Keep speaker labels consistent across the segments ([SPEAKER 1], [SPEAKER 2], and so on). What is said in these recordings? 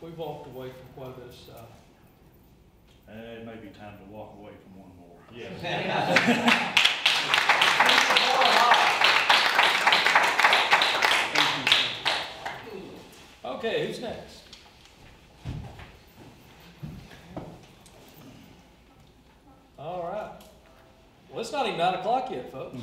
[SPEAKER 1] we walked away from quite a bit of stuff.
[SPEAKER 2] Uh, it may be time to walk away from one more.
[SPEAKER 1] Thank you, sir. Okay, who's next? All right. Well, it's not even nine o'clock yet, folks.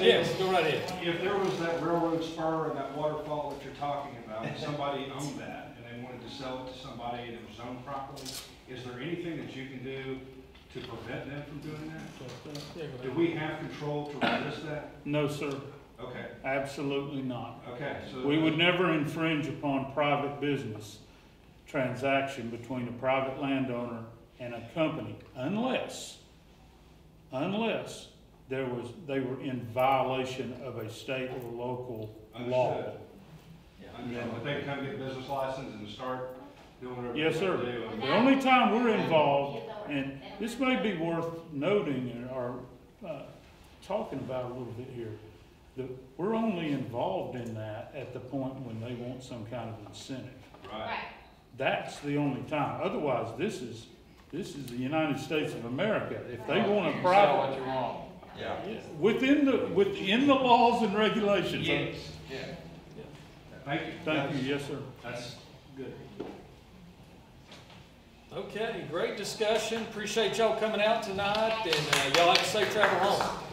[SPEAKER 1] Yes, go right ahead.
[SPEAKER 3] If there was that railroad spur and that waterfall that you're talking about, and somebody owned that, and they wanted to sell it to somebody and it was owned properly, is there anything that you can do to prevent them from doing that?
[SPEAKER 1] Yeah, go
[SPEAKER 3] Do
[SPEAKER 1] ahead.
[SPEAKER 3] we have control to resist that?
[SPEAKER 2] No, sir,
[SPEAKER 3] Okay,
[SPEAKER 2] absolutely not.
[SPEAKER 3] okay, so.
[SPEAKER 2] We would never infringe upon private business transaction between a private landowner and a company unless, unless there was, they were in violation of a state or local law.
[SPEAKER 3] Understood. Understand, But they can come get a business license and start doing whatever. they
[SPEAKER 2] Yes, sir.
[SPEAKER 3] want to do.
[SPEAKER 2] The only time we're involved, and this may be worth noting or, uh, talking about a little bit here, that we're only involved in that at the point when they want some kind of incentive.
[SPEAKER 3] Right,
[SPEAKER 4] Right,
[SPEAKER 2] That's the only time. Otherwise, this is, this is the United States of America. If they want a private,
[SPEAKER 4] you wrong.
[SPEAKER 5] Yeah.
[SPEAKER 2] within the, within the laws and regulations.
[SPEAKER 5] Yeah.
[SPEAKER 3] thank you.
[SPEAKER 2] Thank you, yes, sir.
[SPEAKER 3] That's good.
[SPEAKER 1] Okay, great discussion. Appreciate y'all coming out tonight and uh, y'all have a safe travel home.